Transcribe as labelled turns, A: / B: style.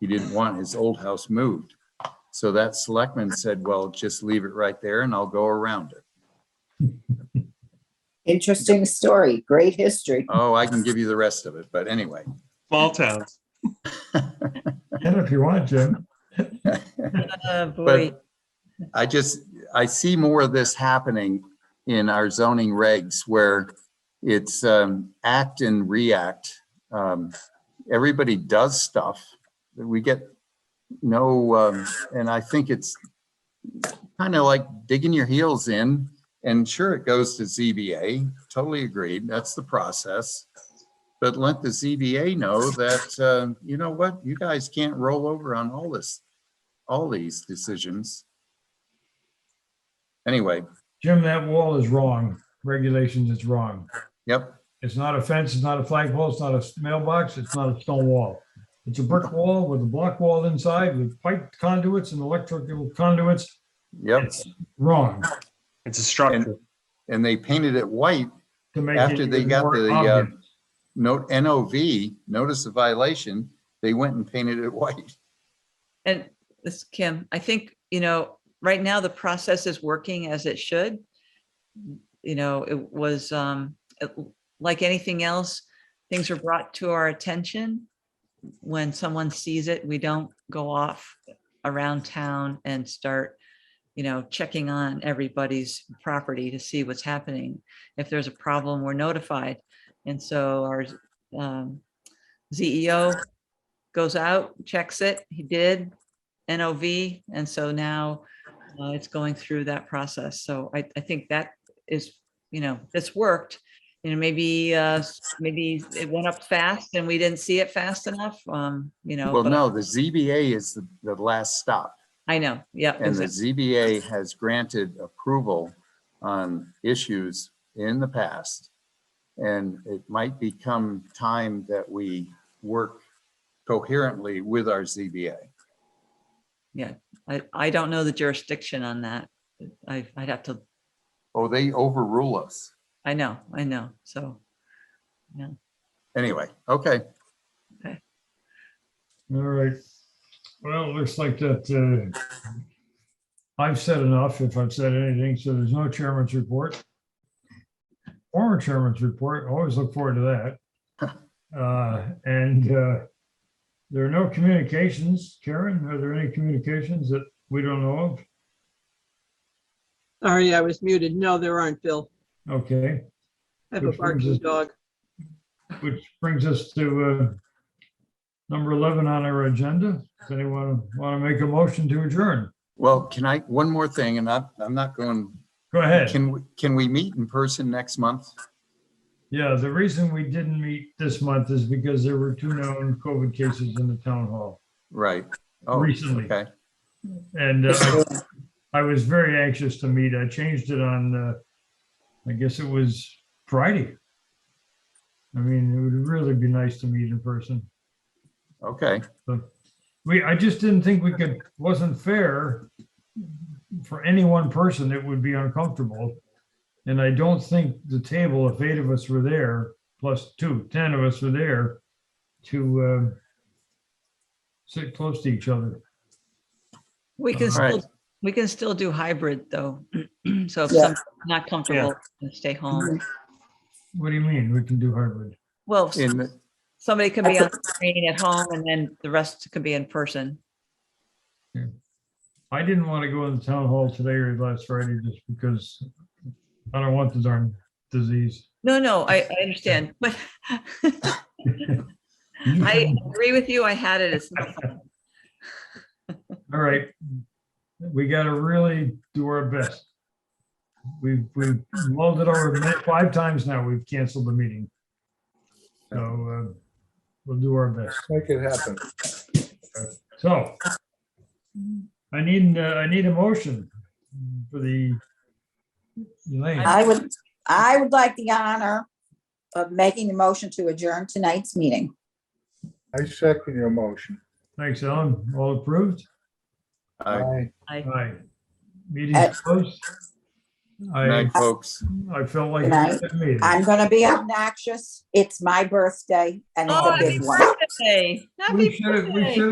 A: he didn't want his old house moved. So that selectman said, well, just leave it right there and I'll go around it.
B: Interesting story, great history.
A: Oh, I can give you the rest of it, but anyway.
C: Small towns.
D: Get it if you want, Jim.
E: Oh, boy.
A: But I just, I see more of this happening in our zoning regs where it's um, act and react. Um, Everybody does stuff. We get no, um, and I think it's kind of like digging your heels in. And sure, it goes to ZBA, totally agreed. That's the process. But let the ZBA know that, uh, you know what, you guys can't roll over on all this all these decisions. Anyway,
D: Jim, that wall is wrong. Regulations is wrong.
A: yep,
D: It's not a fence, it's not a flagpole, it's not a mailbox, it's not a stone wall. It's a brick wall with a block wall inside with pipe conduits and electrical conduits.
A: yep.
D: Wrong.
C: It's a
A: And,
C: structure.
A: and they painted it white,
D: to make it
A: After they
D: even
A: got
D: more
A: the, uh,
D: obvious.
A: note NOV, notice of violation, they went and painted it white.
E: And this, Kim, I think, you know, right now the process is working as it should. You know, it was, um, it- like anything else, things are brought to our attention. When someone sees it, we don't go off around town and start, you know, checking on everybody's property to see what's happening. If there's a problem, we're notified. And so our, um, ZEO goes out, checks it. He did. NOV, and so now uh, it's going through that process. So I, I think that is, you know, it's worked. You know, maybe, uh, maybe it went up fast and we didn't see it fast enough, um, you know.
A: Well,
E: but
A: no, the ZBA is the, the last stop.
E: I know, yeah.
A: And the
E: exact-
A: ZBA has granted approval on issues in the past. And it might become time that we work coherently with our ZBA.
E: I, I don't know the jurisdiction on that. I, I'd have to,
A: Oh, they overrule us.
E: I know, I know, so.
A: Anyway, okay.
D: All right. Well, it looks like that, uh, I've said enough, if I've said anything, so there's no chairman's report. Former chairman's report, always look forward to that. Uh, and, uh, there are no communications. Karen, are there any communications that we don't know of?
F: Sorry, I was muted. No, there aren't, Bill.
D: Okay,
F: I have a
D: Which brings
F: barking
D: us-
F: dog.
D: which brings us to, uh, number 11 on our agenda. Does anyone want to make a motion to adjourn?
A: Well, can I, one more thing, and I'm, I'm not going,
D: Go ahead.
A: can, we- can we meet in person next month?
D: Yeah, the reason we didn't meet this month is because there were two known COVID cases in the town hall
A: Right. Oh,
D: recently.
A: okay.
D: And uh, I was very anxious to meet. I changed it on, uh, I guess it was Friday. I mean, it would really be nice to meet in person.
A: Okay,
D: We, I just didn't think we could, wasn't fair for any one person, it would be uncomfortable. And I don't think the table, if eight of us were there, plus two, ten of us were there to um, sit close to each other.
E: We can
A: All right.
E: still, we can still do hybrid though. So if
B: Yeah.
E: someone's not comfortable, stay home.
D: What do you mean? We can do hybrid?
E: Well,
A: in, the-
E: somebody could be
B: That's a-
E: on screen at home and then the rest could be in person.
D: I didn't want to go in the town hall today or last Friday just because I don't want the darn disease.
E: No, no, I, I understand, but I agree with you. I had it. It's not fun.
D: All right. We gotta really do our best. We've, we've mulled it over ma- five times now. We've canceled the meeting. So uh, we'll do our best.
G: Make it happen.
D: So I need, uh, I need a motion for the Elaine.
B: I would, I would like the honor of making the motion to adjourn tonight's meeting.
G: I second your motion.
D: Thanks, Ellen. All approved?
A: Aye.
G: Aye.
D: Aye. Meeting
B: Aye.
D: closed. I,
A: night, folks.
D: I felt like.
B: Good night.
D: meeting.
B: I'm gonna be obnoxious. It's my birthday and it's
E: Oh,
B: a
E: happy
B: big one.
E: birthday. Happy
D: We should have, we
E: birthday.
D: should